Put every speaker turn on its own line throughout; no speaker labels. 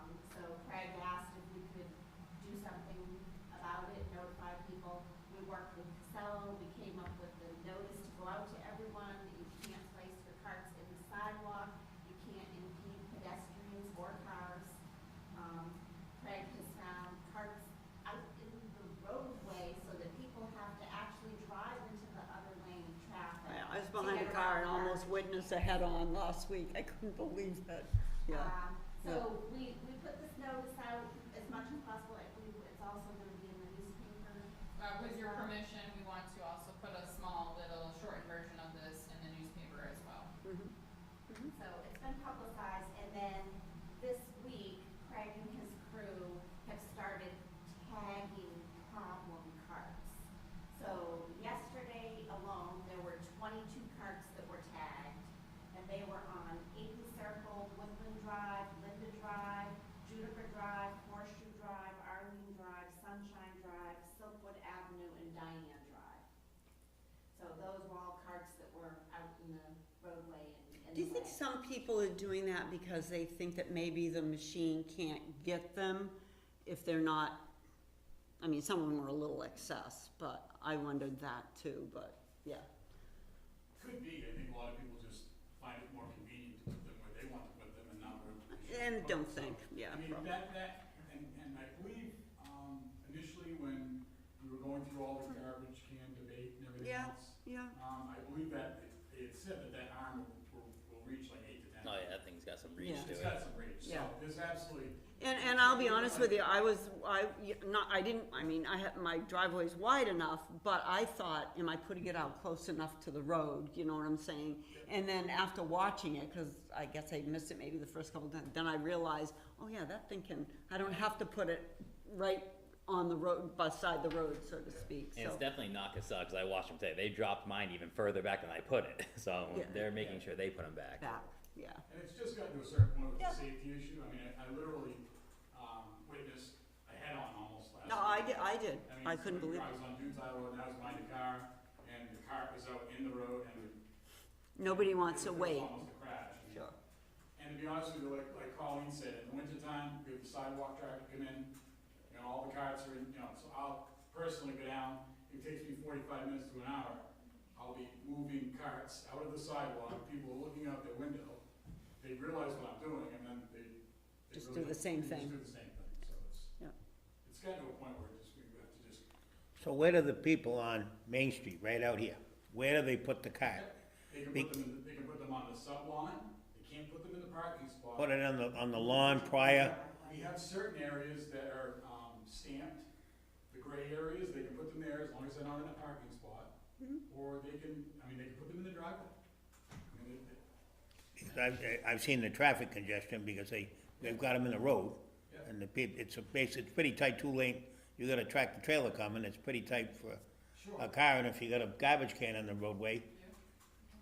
Um, Um,
inches ahead on last week. I couldn't believe it. Yeah,
Um,
yeah.
So we, we put this notice out as much as possible, I believe it's also gonna be in the newspaper.
Uh, with your permission, we want to also put a small little shortened version of this in the newspaper as well.
Mhm. Mhm.
So it's been publicized, and then this week, Craig and his crew have started tagging problem carts. So yesterday alone, there were twenty-two carts that were tagged, and they were on Aiden Circle, Woodland Drive, Linda Drive, Juniper Drive, Horseshoe Drive, Arlene Drive, Sunshine Drive, Silkwood Avenue, and Diane Drive. So those were all carts that were out in the roadway and in the way.
Do you think some people are doing that because they think that maybe the machine can't get them if they're not, I mean, some of them are a little excess, but I wondered that too, but yeah.
Could be, I think a lot of people just find it more convenient to put them where they want to put them and not where they should.
And
put
don't
them.
think, yeah.
I mean,
probably.
that, that, and, and I believe, um, initially when we were going through all the garbage can debate and everything
Mm-hmm. Yeah.
else,
Yeah,
um, I believe that they- they had said that that arm will, will, will reach like eight to ten.
Oh yeah, that thing's got some reach
Yeah.
to
It's
it.
got some reach, so
Yeah.
there's absolutely,
and, and I'll be honest with you, I was, I, not, I didn't, I mean, I had, my driveway's wide enough, but I thought, am I putting it out close enough to the road, you know what I'm saying? And then after watching it, cause I guess I missed it maybe the first couple times, then I realized, oh yeah, that thing can, I don't have to put it right on the road, beside the road, so to speak, so.
And it's definitely not Casella because I watched them today. They dropped mine even further back than I put it, so
Yeah.
they're making sure they put them back.
Back, yeah,
and it's just gotten to a certain point with
Yeah.
the safety issue, I mean, I, I literally, um, witnessed a head-on almost last
no,
night.
I did, I did,
mean,
I couldn't believe,
somebody drives on Dunes Highway Road, and I was behind a car, and the car was out in the road, and.
nobody wants to
it was
wait,
Almost a crash. And-
sure,
And to be honest with you, like, like Colleen said, in the wintertime, we have the sidewalk traffic come in, you know, all the cars are in, you know, so I'll personally go down, it takes me forty-five minutes to an hour. I'll be moving carts out of the sidewalk, people are looking out their window, they realize what I'm doing, and then they. they
Just
really
do the same
they
thing.
Just do the same thing, so it's.
Yeah.
It's gotten to a point where just, we have to just
So where do the people on Main Street, right out here, where do they put the cart?
They can
Be-
put them, in the- they can put them on the sub line, they can't put them in the parking spot.
Put it on the, on the lawn prior?
We have certain areas that are, um, stamped, the gray areas, they can put them there as long as they're not in a parking spot.
Mm-hmm.
Or they can, I mean, they can put them in the driveway. I mean, it- it-
Because I've, I've seen the traffic congestion because they, they've got them in the road. And the peop it's a base, it's pretty tight two lane, you got a tractor trailer coming, it's pretty tight for a
Sure,
car, and if you got a garbage can on the roadway,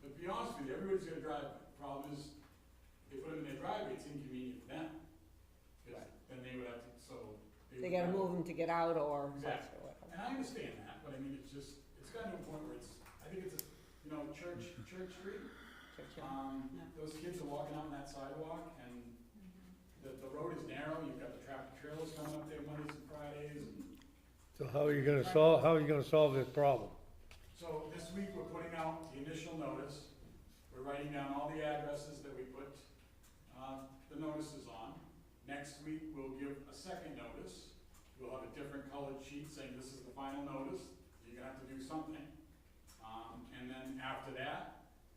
but to be honest with you, everybody's gonna drive, problem is, they put them in their driveway, it's inconvenient for them. 'Cause then they would have to, so.
they
would
gotta
have-
move them to get out or.
Exactly. And I understand that, but I mean, it's just, it's gotten to a point where it's, I think it's a, you know, church, church street, Um,
Yeah.
those kids are walking out on that sidewalk and the, the road is narrow, you've got the traffic trails coming up there Mondays and Fridays. and
So how are you gonna solve, how are you gonna solve this problem?
So this week, we're putting out the initial notice. We're writing down all the addresses that we put, uh, the notices on. Next week, we'll give a second notice. We'll have a different colored sheet saying this is the final notice, you're gonna have to do something. Um, and then after that,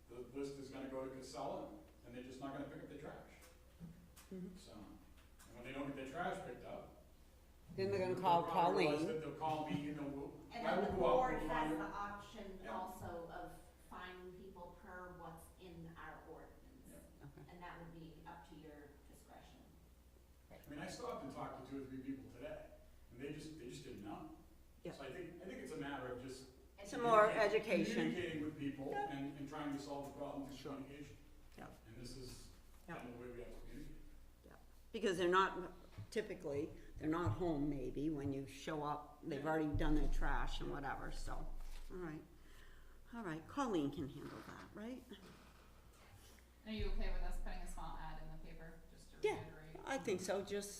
the list is gonna go to Casella, and they're just not gonna pick up the trash.
Mhm.
So, and when they don't get their trash picked up.
Then they're gonna call
they'll probably realize
Colleen.
that They'll call me, you know, we'll,
And
I
then the
will go out,
board
we'll find
has
it.
the option
Yeah.
also of finding people per what's in our ordinance.
Okay.
And that would be up to your discretion.
I mean, I stopped and talked to two or three people today, and they just, they just didn't know.
Yeah.
So I think, I think it's a matter of just.
And
Some more
communica-
education.
Communicating with people
Yeah.
and, and trying to solve the problem through communication.
Yeah.
And this is
Yeah.
kind of the way we have to communicate.
Because they're not, typically, they're not home maybe when you show up, they've already done their trash and whatever, so, all right. All right, Colleen can handle that, right?
Are you okay with us putting a small ad in the paper, just to
Yeah,
reiterate?
I think so, just